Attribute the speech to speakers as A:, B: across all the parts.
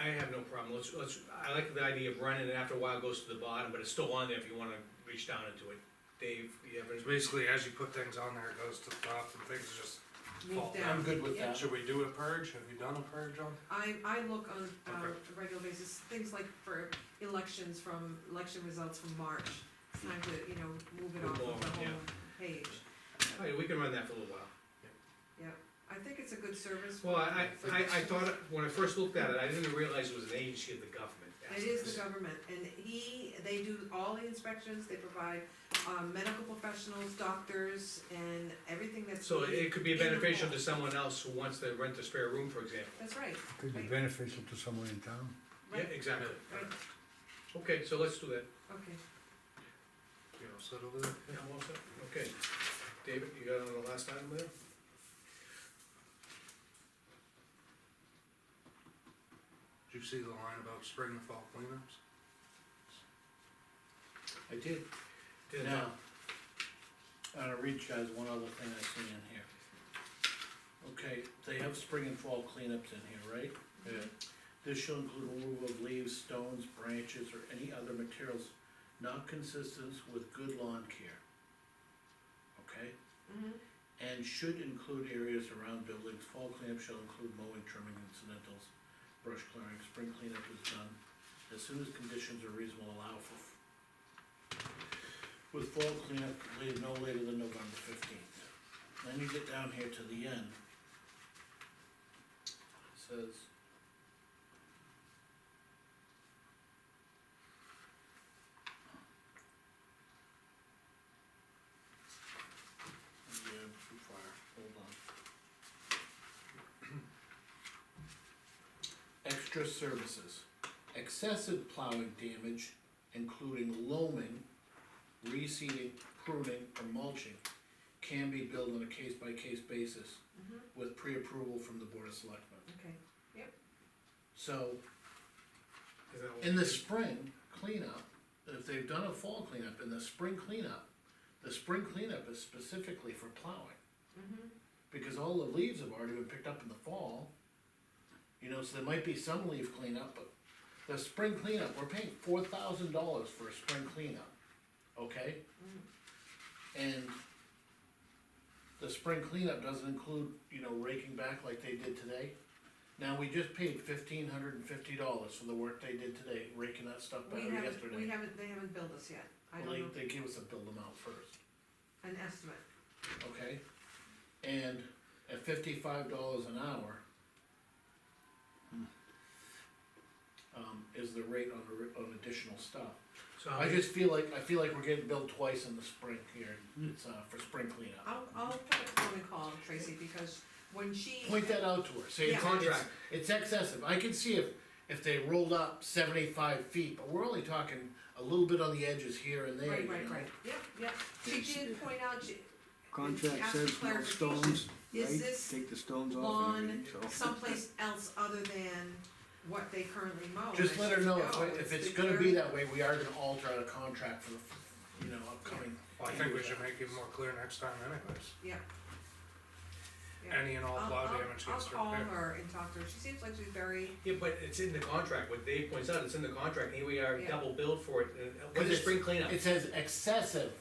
A: I have no problem, let's, let's, I like the idea of running, and after a while it goes to the bottom, but it's still on there if you wanna reach down into it. Dave, do you have
B: It's
A: any?
B: basically, as you put things on there, it goes to the top and things just fall
C: Move
B: down.
C: down.
D: good
C: yeah.
B: Should we do a purge? Have you done a purge on?
C: I, I look on, uh,
B: Okay.
C: a regular basis, things like for elections from, election results from March. It's time to, you know, move it
A: Move
C: off of
A: forward,
C: the whole
A: yeah.
C: page.
A: Oh, yeah, we can run that for a little while.
C: I think it's a good service.
A: Well, I, I, I- I thought, when I first looked at it, I didn't realize it was an agency of the government.
C: It is the government, and he, they do all the inspections, they provide, um, medical professionals, doctors, and everything that's.
A: So
C: needed.
A: it could be
C: In the
A: beneficial
C: hall.
A: to someone else who wants to rent a spare room, for example.
C: That's right,
D: Could be beneficial to someone in town.
A: Yeah,
C: right,
A: exactly.
C: right,
A: Okay, so let's do that.
C: okay.
B: You know, settle it.
A: Yeah, I'm all set. Okay. David, you got on the last item there?
B: Did you see the line about spring and fall cleanups?
D: I did.
A: Didn't-
D: Now, on a reach, guys, one other thing I see in here. Okay, they have spring and fall cleanups in here, right?
A: Yeah.
D: This shall include removal of leaves, stones, branches, or any other materials not consistent with good lawn care. Okay?
C: Mhm.
D: And should include areas around buildings, fall cleanup shall include mowing, trimming, incidentals, brush clearing, spring cleanup is done as soon as conditions are reasonable allow for. With fall cleanup completed no later than November fifteenth. Then you get down here to the end. It Says. Yeah, too far, hold on. Extra services, excessive plowing damage, including loaming, reseeding, pruning, or mulching, can be billed on a case-by-case basis
C: Mhm.
D: with pre-approval from the Board of Selectmen.
C: Okay,
D: So,
A: Is that what-
D: in the spring cleanup, if they've done a fall cleanup, in the spring cleanup, the spring cleanup is specifically for plowing.
C: mhm,
D: because all the leaves have already been picked up in the fall. You know, so there might be some leaf cleanup, but the spring cleanup, we're paying four thousand dollars for a spring cleanup, okay? And the spring cleanup doesn't include, you know, raking back like they did today. Now, we just paid fifteen hundred and fifty dollars for the work they did today, raking that stuff
C: we
D: back
C: haven't, we
D: yesterday.
C: haven't, they haven't billed us yet, I
D: Well,
C: don't know,
D: they, they gave us a bill amount first.
C: an estimate,
D: okay? And at fifty-five dollars an hour, um, is the rate on, the- on additional stuff.
A: So how
D: I
A: many-
D: just feel like, I feel like we're getting billed twice in the spring here, it's, uh, for spring cleanup.
C: I'll, I'll put a phone call Tracy, because when she.
D: Point that out to her, say it's,
C: Yeah.
D: it's, it's excessive, I can see if, if they rolled up seventy-five feet, but we're only talking a little bit on the edges here and there,
C: Right,
D: you know?
C: right, right, yep, yep, she did point out, she,
E: Contract
C: Ask for
E: says no stones,
C: Is
E: right?
C: this
E: Take the stones off and
C: lawn
E: everything, so.
C: someplace else other than what they currently mow.
D: Just
C: And Oh, I
D: let her
C: said,
D: know, if,
C: "No,
D: if it's
C: the
D: gonna be
C: very-
D: that way, we are gonna alter the contract for the, you know, upcoming.
B: Well, I think we should make it more clear next time anyways.
C: Yeah. Yeah.
B: Any and all
C: I'll-
B: plow
C: I'll-
B: damage gets
C: I'll call
B: repaired.
C: her and talk to her, she seems like she's very,
A: Yeah, but it's in the contract, what Dave points out, it's in the contract, here we are
C: Yeah.
A: double billed for it, and what
D: Because
A: is
D: it's-
A: spring cleanup?
D: It says excessive.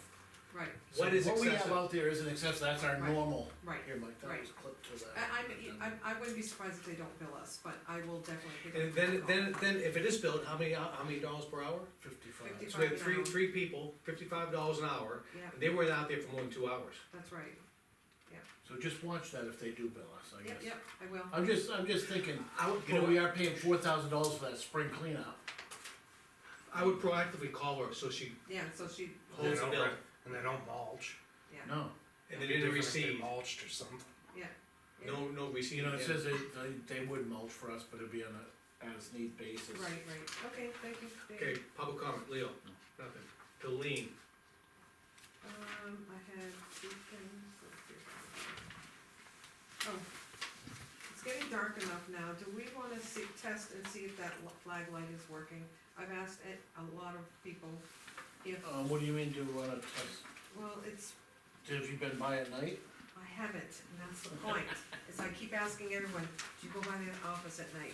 C: right,
D: So
A: What is
D: What we have
A: excessive?
D: out there isn't excessive, that's our
C: Right.
D: normal.
C: right.
D: Here, Mike, that
C: Right.
D: was clipped to that.
C: I, I'm, I, I wouldn't be surprised if they don't bill us, but I will definitely. give her a
A: And then,
C: call.
A: then, then if it is billed, how many, how many dollars per hour?
D: Fifty-five.
C: 55
A: So we had three,
C: an hour.
A: three people, fifty-five dollars an hour,
C: Yeah,
A: and they weren't out there for more than two hours.
C: that's right,
D: So just watch that if they do bill us, I
C: yep,
D: guess.
C: yep, I will,
D: I'm just, I'm just thinking,
A: I would,
D: you know,
A: pro-
D: we are paying four thousand dollars for that spring cleanup.
A: I would proactively call her, so she
C: yeah, so she,
B: And they
A: holds the
B: don't
A: bill,
B: re- And they don't mulch.
D: No,
A: and they
B: It'd be
A: didn't
B: different if they
A: receive,
B: Mulched or something.
A: no, no receipt.
D: you know, it
A: yeah.
D: says they, they, they would mulch for us, but it'd be on a as-need basis.
C: right, right, okay, thank you. Dave.
A: Okay, public comment, Leo, nothing, Colleen,
C: Um, I had two things, let's see. if I can- Oh, it's getting dark enough now, do we wanna see, test and see if that l- flag light is working? I've asked it, a lot of people if,
D: Um, what do you mean, do we wanna test,
C: well, it's,
D: have you been by at night?
C: I haven't, and that's the point, is I keep asking everyone, do you go by the office at night?